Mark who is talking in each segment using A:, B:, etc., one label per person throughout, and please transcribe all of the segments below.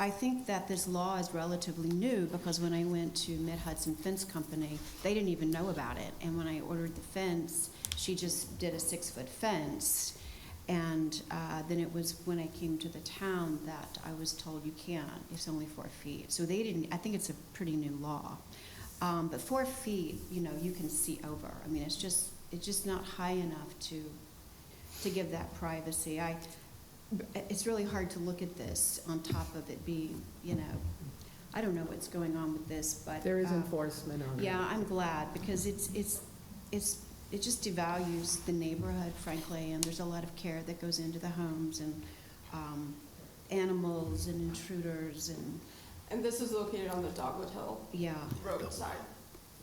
A: I think that this law is relatively new because when I went to Mid Hudson Fence Company, they didn't even know about it. And when I ordered the fence, she just did a six foot fence. And uh, then it was when I came to the town that I was told you can't, it's only four feet. So they didn't, I think it's a pretty new law. Um, but four feet, you know, you can see over. I mean, it's just, it's just not high enough to, to give that privacy. I, it's really hard to look at this on top of it being, you know, I don't know what's going on with this, but.
B: There is
A: uh,
B: enforcement on it.
A: Yeah, I'm glad, because it's, it's, it's, it just devalues the neighborhood, frankly, and there's a lot of care that goes into the homes and, um, animals and intruders and,
C: And this is located on the Dogwood Hill
A: yeah.
C: Road side,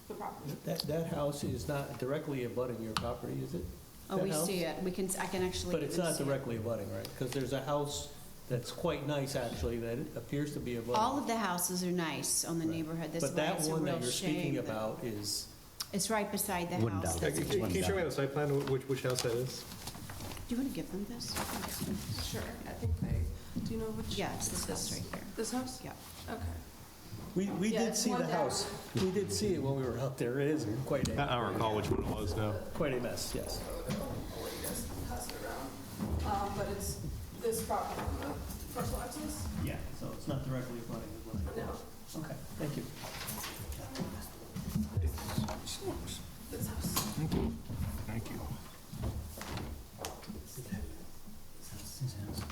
C: the property.
D: That, that house is not directly abutting your property, is it?
A: Oh,
D: That
A: we
D: house?
A: see it, we can, I can actually.
D: But it's
A: even
D: not
A: see it.
D: directly abutting, right? Because there's a house that's quite nice, actually, that appears to be
A: All
D: abutting.
A: of the houses are nice on the
D: Right.
A: neighborhood, that's
D: But
A: why
D: that
A: it's a
D: one
A: real
D: that you're speaking
A: shame that-
D: about is,
A: It's right beside the
E: Wooden
A: house.
E: down.
A: that's
F: Can
A: abandoned.
F: can you show me on the site plan wh- which, which house that is?
A: Do you wanna give them this?
C: Sure, I think they, do you know which?
A: Yeah, it's this house right here.
C: This house?
A: Yeah.
C: Okay.
D: we, we
C: Yeah,
D: did
C: it's
D: see
C: one
D: the
C: down.
D: house. We did see it when we were out there. It is quite
G: Uh,
F: I
D: a,
F: I don't recall which one it was now.
D: quite a mess, yes.
C: Pass it around. Um, but it's this property on the first access?
D: Yeah, so it's not directly abutting
C: No,
D: Okay, thank you.
C: this house.
F: Thank you.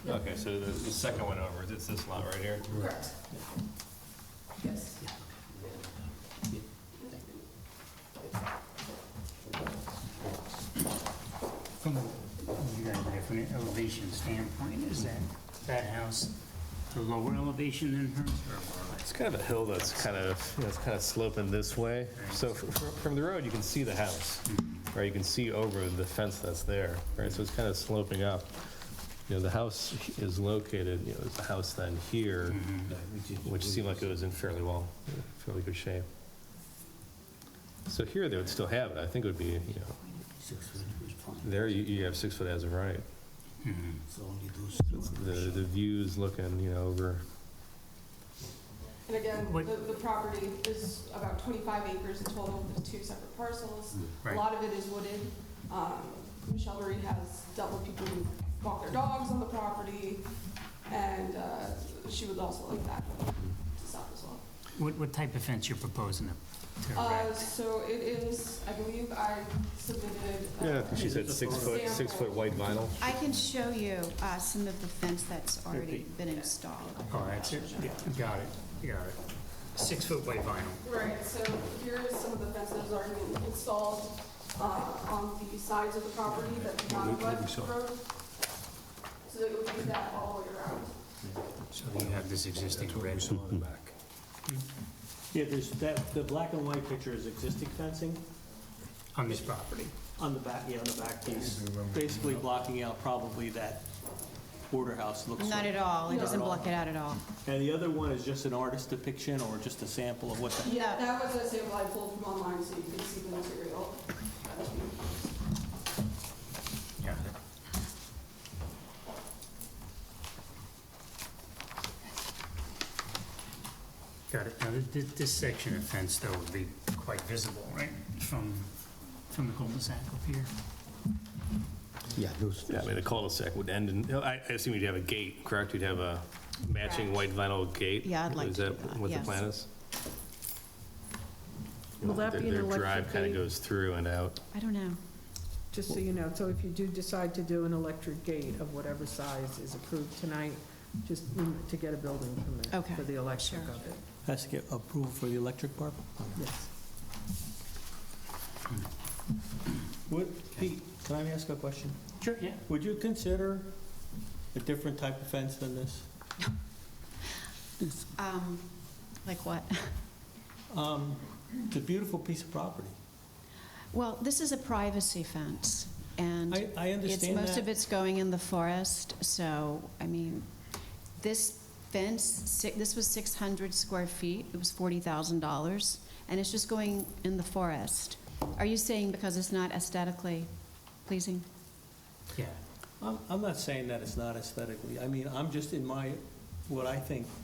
F: Okay, so the, the second one over, it's this lot right here?
C: Correct. Yes.
H: From a you got a different elevation standpoint, is that, that house a lower elevation than hers or more or less?
F: It's kind of a hill that's kind of, you know, it's kind of sloping this way. So fr- fr- from the road, you can see the house, or you can see over the fence that's there, right? So it's kind of sloping up. You know, the house is located, you know, there's a house then here, which seemed like it was in fairly well, fairly good shape. So here, they would still have it. I think it would be, you know,
E: Six foot was fine,
F: there you- you have six foot as of right.
H: Mm-hmm.
E: so only those
F: The,
E: two.
F: the view's looking, you know, over,
C: And again,
H: What-
C: the, the property is about 25 acres in total, with two separate parcels. A
H: Right.
C: lot of it is wooded. Um, Michelle Marie has dealt with people who walk their dogs on the property, and uh, she would also like that to stop as well.
H: What, what type of fence you're proposing to- to
C: Uh,
H: erect?
C: So it is, I believe I submitted. uh,
F: yeah, I think she said six foot, six foot white vinyl.
A: I can show you uh, some of the fence that's already been installed.
H: Oh, that's it, yeah, got it, got it. Six foot white vinyl.
C: Right, so here is some of the fences already installed uh, on the sides of the property that do not abut the road. So it would be that all the way around.
H: So you have this existing red. back.
G: Yeah, there's that, the black and white picture is existing fencing
H: On this property.
G: on the back, yeah, on the back piece, basically blocking out probably that border house looks
A: Not
G: like.
A: at all, it
C: No.
A: doesn't block it out at all.
G: And the other one is just an artist depiction or just a sample of what the,
C: Yeah, that was a sample I pulled from online so you can see the material.
H: Got it. Got it. Now, this, this section of fence though would be quite visible, right, from, from the cul-de-sac up here?
E: Yeah, those.
F: Yeah, I mean, the cul-de-sac would end in, I I assume you'd have a gate, correct? You'd have a matching white vinyl gate?
A: Yeah, I'd like
F: Is
A: to do that,
F: that what the
A: yes.
F: plan is?
B: Will that
F: Their-
B: be an
F: Their drive
B: electric
F: kind
B: gate?
F: of goes through and out.
A: I don't know.
B: Just so you know, so if you do decide to do an electric gate of whatever size is approved tonight, just rem- to get a building permit
A: Okay,
B: for the electric
A: sure.
B: of it,
G: has to get approval for the electric part?
B: yes.
G: Would, Pete, can I ask a question?
H: Sure, yeah.
G: Would you consider a different type of fence than this?
A: Um, Like what?
G: Um, It's a beautiful piece of property.
A: Well, this is a privacy fence, and
G: I, I
A: it's,
G: understand
A: most of
G: that.
A: it's going in the forest, so, I mean, this fence, si- this was 600 square feet, it was $40,000, and it's just going in the forest. Are you saying because it's not aesthetically pleasing?
H: Yeah.
G: I'm, I'm not saying that it's not aesthetically. I mean, I'm just in my, what I think